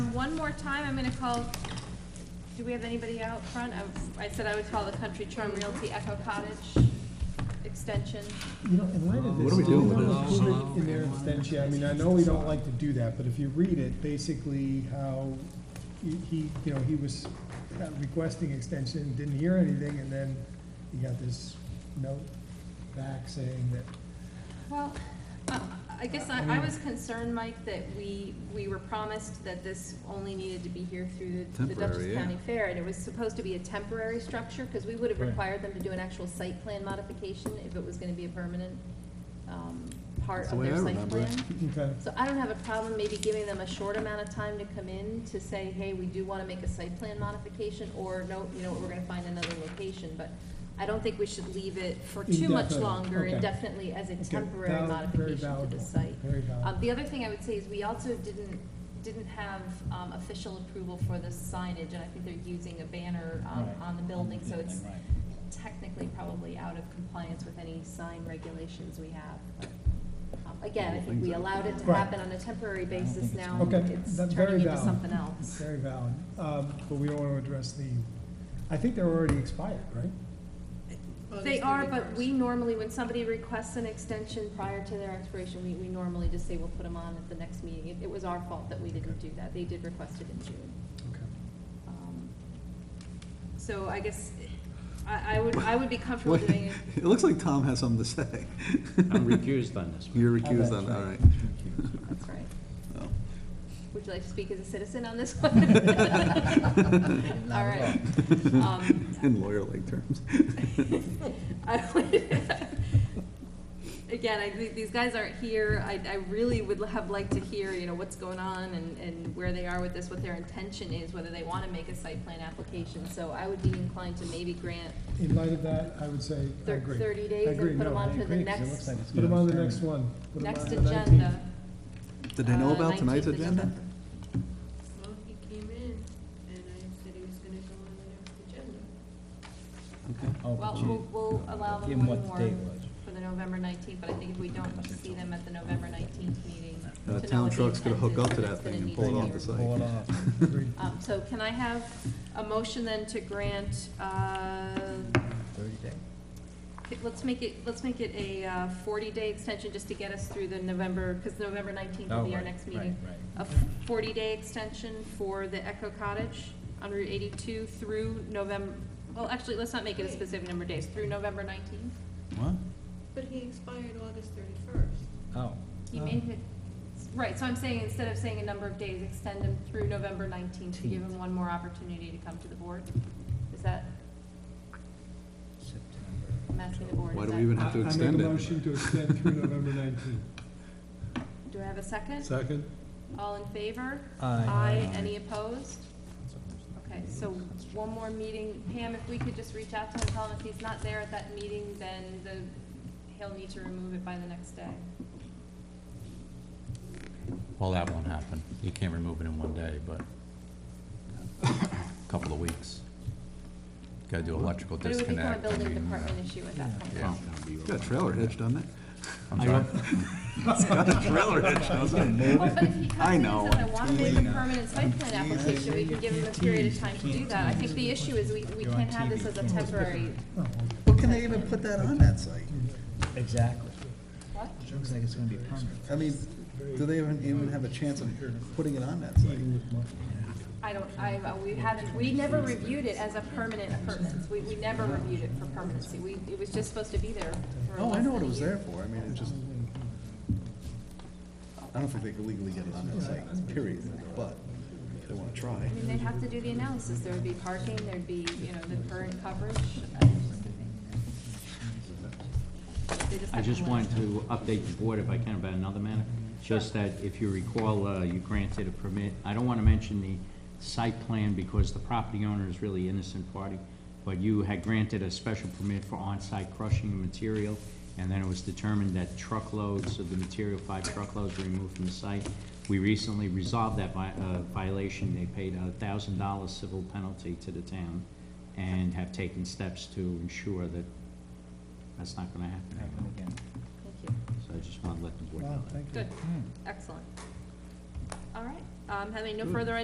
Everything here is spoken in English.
one more time, I'm gonna call, do we have anybody out front? Um, I- I said I would call the Country Charm Realty Echo Cottage extension. You know, in light of this. What do we do with you this? wanna put it In their abstention, I mean, I know we don't like to do that, but if you read it, basically how he- he, you know, he was uh, requesting extension, didn't hear anything, and then he got this note back saying that, Well, uh, I guess I, I was concerned, Mike, that we, we were promised that this only needed to be here through the- the Temporary, Dutchess yeah. County Fair, and it was supposed to be a temporary structure, because we would have Right. required them to do an actual site plan modification if it was gonna be a permanent, um, part That's the of way their I site remember it. plan. you can kind of, So I don't have a problem maybe giving them a short amount of time to come in to say, hey, we do wanna make a site plan modification, or no, you know, what, we're gonna find another location, but I don't think we should leave it for too much Indefinitely, longer okay. indefinitely as a Okay, temporary valid- very modification to valuable, the site. Very Um, valuable. the other thing I would say is we also didn't, didn't have, um, official approval for the signage, and I think they're using a banner, um, Right. on the building, so it's Right. technically probably out of compliance with any sign regulations we have. but, um, Again, I think we allowed it to Right. happen on a temporary don't basis think it's now, wrong. Okay, um, it's that's very turning into valid. something else. Very valid, um, but we don't want to address the, I think they're already expired, right? They are, but we normally, when somebody requests an extension prior to their expiration, we, we normally just say we'll put them on at the next meeting. It- It was our fault that we didn't do that, they did request it in June. Okay. Um, So I guess, I, I would, I would be comfortable Wait, doing it. It looks like Tom has something to say. I'm recused on this one. You're recused on, That's all right. That's right. Oh. Would you like to speak as a citizen on this one? All right. Um, In lawyer-like terms. I would- Again, I, think these guys aren't here, I, I really would have liked to hear, you know, what's going on and, and where they are with this, what their intention is, whether they wanna make a site plan application, so I would be inclined to maybe grant In light of that, I would say, I thir- agree. thirty I days agree, and put them no, on I to the agree, 'cause next, it looks like it's Put them on the Yeah. next one. Put 'em on next the 19th. agenda. Did they know uh, about tonight's 19th of agenda? November. Well, he came in, and I said he was gonna go on the next agenda. Okay. Oh, but Well, you- we'll, we'll allow Give them him one what the date more was. for the November nineteenth, but I think if we don't see them at the November nineteenth meeting. The to know Uh, town what the truck's gonna intent hook up is, to if that it's gonna thing and need pull it to off be the reviewed. site. Pull it off. Agreed. Um, so can I have a motion then to grant, uh, Thirty day. okay, let's make it, let's make it a uh, forty-day extension just to get us through the November, because November nineteenth will Oh, be our right, next right, meeting. right. A forty-day extension for the Echo Cottage on Route eighty-two through November, well, actually, let's not make it a specific number of days, through November nineteenth. What? But he expired August thirty-first. Oh, He Oh. made it, right, so I'm saying, instead of saying a number of days, extend him through November nineteenth to give him one more opportunity to come to the board? Is that, September. I'm asking the board, Why is do that? we even have to I extend make a it? motion to extend through November nineteenth. Do I have a second? Second? All in favor? Aye. any opposed? Okay, so one more meeting, Pam, if we could just reach out to him, tell him if he's not there at that meeting, then the, he'll need to remove it by the next day. Well, that won't happen. You can't remove it in one day, but a couple of weeks. Gotta do electrical But it would become a disconnect. I building mean, uh, department issue at that point. Yeah. It's got a trailer hitch, doesn't it? I'm sorry. It's got a trailer hitch, doesn't it? Well, but if he comes I in know. and says, I want to make a permanent site plan application, we can give him a period of time to do that. I think the issue is we, we can't have this as a temporary, Well, can they even put that on that site? Exactly. what? Looks like it's gonna be permanent. I mean, do they even, even have a chance of putting it on that site? I don't, I, uh, we haven't, we never reviewed it as a permanent permanence. We, we never reviewed it for permanency. We, it was just supposed to be there for Oh, I less know what than it a was year. there for, I mean, it just, I don't think they could legally get it on that site, period, but they wanna try. I mean, they'd have to do the analysis. There would be parking, there'd be, you know, the current coverage. They I have just to let wanted us know. to update the board if I can about another matter. Just that if you recall, uh, you granted a permit, I don't want to mention the site plan because the property owner is really innocent party, but you had granted a special permit for on-site crushing of material, and then it was determined that truckloads of the material, five truckloads were removed from the site. We recently resolved that vi- uh, violation. They paid a thousand dollar civil penalty to the town and have taken steps to ensure that that's not going to happen anymore. Happen again. Thank you. So I just want to let the board know Wow, Hmm. that. thank you. Good, excellent. All right, um, having no further